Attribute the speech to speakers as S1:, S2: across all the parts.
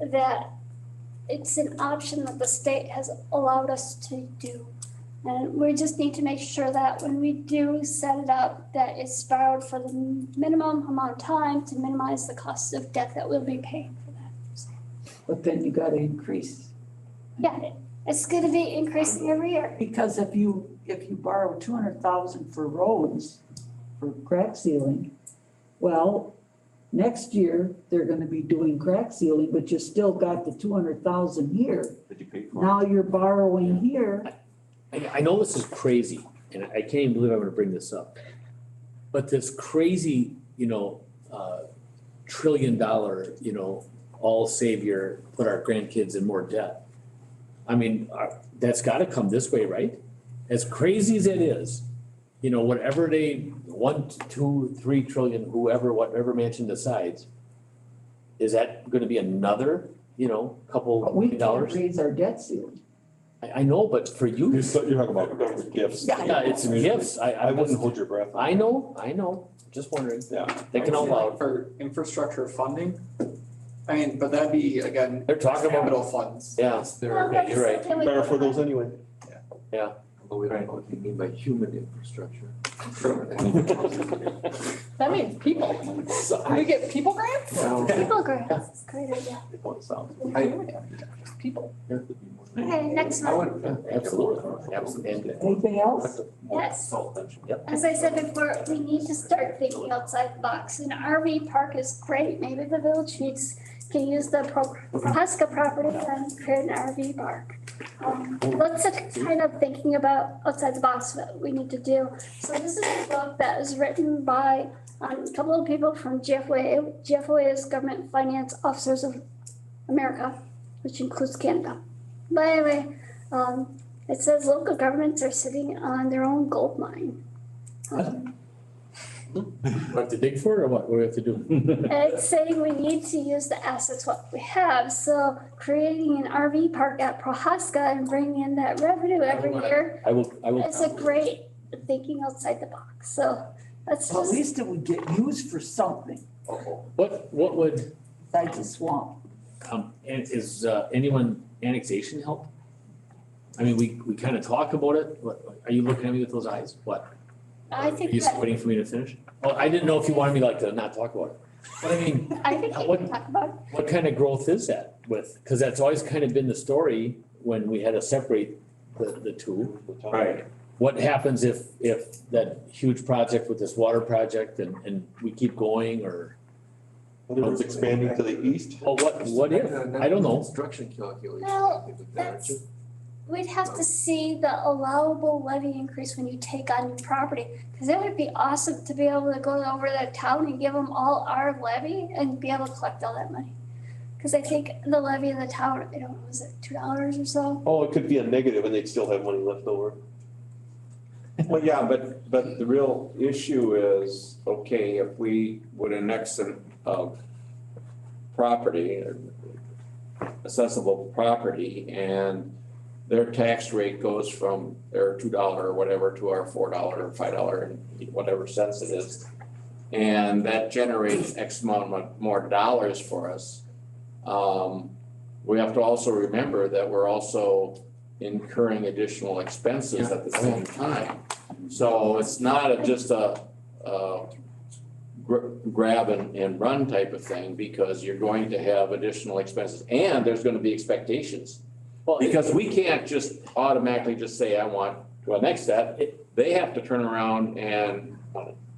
S1: that it's an option that the state has allowed us to do. And we just need to make sure that when we do set it up, that it's borrowed for the minimum amount of time to minimize the cost of debt that we'll be paying for that. So,
S2: But then you gotta increase,
S1: Yeah, it's gonna be increasing every year.
S2: because if you, if you borrow two hundred thousand for roads, for crack sealing, well, next year, they're gonna be doing crack sealing, but you still got the two hundred thousand here.
S3: that you paid for.
S2: Now you're borrowing here,
S4: I, I know this is crazy, and I can't even believe I'm gonna bring this up. But this crazy, you know, uh, trillion dollar, you know, all savior, put our grandkids in more debt. I mean, uh, that's gotta come this way, right? As crazy as it is, you know, whatever they, one, two, three trillion, whoever, whatever mansion decides, is that gonna be another, you know,
S2: but
S4: couple
S2: we can't
S4: dollars?
S2: raise our debt ceiling.
S4: I, I know, but for you.
S3: You're, so- you're talking about gifts.
S2: Yeah,
S4: Yeah, it's gifts, I, I
S3: I wouldn't
S4: wouldn't,
S3: hold your breath.
S4: I know, I know, just wondering,
S3: Yeah.
S4: thinking out
S5: I'd say, like,
S4: loud,
S5: For infrastructure funding, I mean, but that'd be again,
S4: they're talking about,
S5: capital funds.
S4: yeah,
S1: Well, but
S4: you're right.
S1: can we-
S3: Better for those anyway.
S6: But we don't know what you mean by human infrastructure.
S7: That means people. We get people grants?
S1: People grants, it's a great idea.
S7: People.
S1: Okay, next
S6: I
S1: one.
S6: would.
S4: absolutely, absolutely. And-
S2: Anything else?
S1: Yes. As I said before, we need to start thinking outside the box. An RV park is great. Maybe the village needs, can use the Pro- Prohaska property and create an RV park. Um, Lots of kind of thinking about outside the box, what we need to do. So this is a book that was written by um, a couple of people from GFOA. GFOA is Government Finance Officers of America, which includes Canada. But anyway, um, it says local governments are sitting on their own gold mine. Um,
S4: We have to dig for it, or what, what do we have to do?
S1: and It's saying we need to use the assets what we have, so creating an RV park at Prohaska and bringing in that revenue every year
S4: I will, I will.
S1: is a great thinking outside the box, so that's
S2: At
S1: just,
S2: least it would get used for something
S4: What, what would,
S2: besides a swamp.
S4: um, an- is, uh, anyone annexation help? I mean, we, we kinda talk about it, what, are you looking at me with those eyes, what?
S1: I
S4: Are
S1: think
S4: you
S1: that,
S4: waiting for me to finish? Oh, I didn't know if you wanted me like to not talk about it, but I mean,
S1: I think we can talk about it.
S4: What kind of growth is that with, because that's always kind of been the story when we had to separate the, the two. Right. What happens if, if that huge project with this water project and, and we keep going or,
S3: It was expanding to the east.
S4: well, what, what if? I don't know.
S6: Construction calculation.
S1: Well, that's- We'd have to see the allowable levy increase when you take on new property, because it would be awesome to be able to go over to town and give them all our levy and be able to collect all that money. Because I think the levy in the town, I don't know, was it two dollars or so?
S3: Oh, it could be a negative and they'd still have money left over.
S8: Well, yeah, but, but the real issue is, okay, if we would annex an, uh, property, accessible property, and their tax rate goes from their two dollar or whatever to our four dollar or five dollar and whatever cents it is. And that generates X amount mo- more dollars for us. Um, we have to also remember that we're also incurring additional expenses at the same time. So it's not a- just a, a gr- grab and, and run type of thing because you're going to have additional expenses and there's gonna be expectations.
S4: Well,
S8: Because we can't just automatically just say, I want to annex that. They have to turn around and,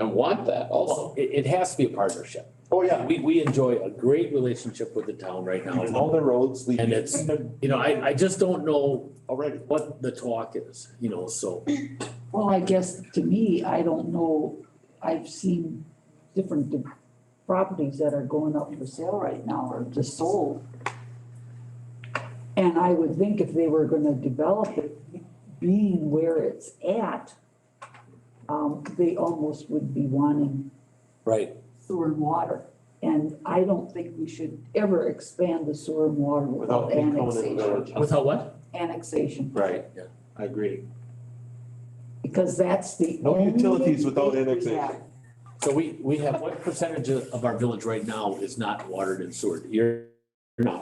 S8: and want that also.
S4: Well, it, it has to be a partnership.
S3: Oh, yeah.
S4: We, we enjoy a great relationship with the town right now.
S3: And all the roads lead.
S4: And it's, you know, I, I just don't know
S3: Already.
S4: what the talk is, you know, so.
S2: Well, I guess to me, I don't know, I've seen different de- properties that are going up for sale right now or just sold. And I would think if they were gonna develop it, being where it's at, um, they almost would be wanting
S4: Right.
S2: sewer and water. And I don't think we should ever expand the sewer and water
S3: Without
S2: without
S3: income in the
S2: annexation,
S3: village.
S4: Without what?
S2: annexation,
S8: Right,
S4: Yeah.
S8: I agree.
S2: because that's the
S3: No
S2: only
S3: utilities without
S2: thing we
S3: annexation.
S2: have.
S4: So we, we have, what percentage of of our village right now is not watered and sewered? You're, you're not.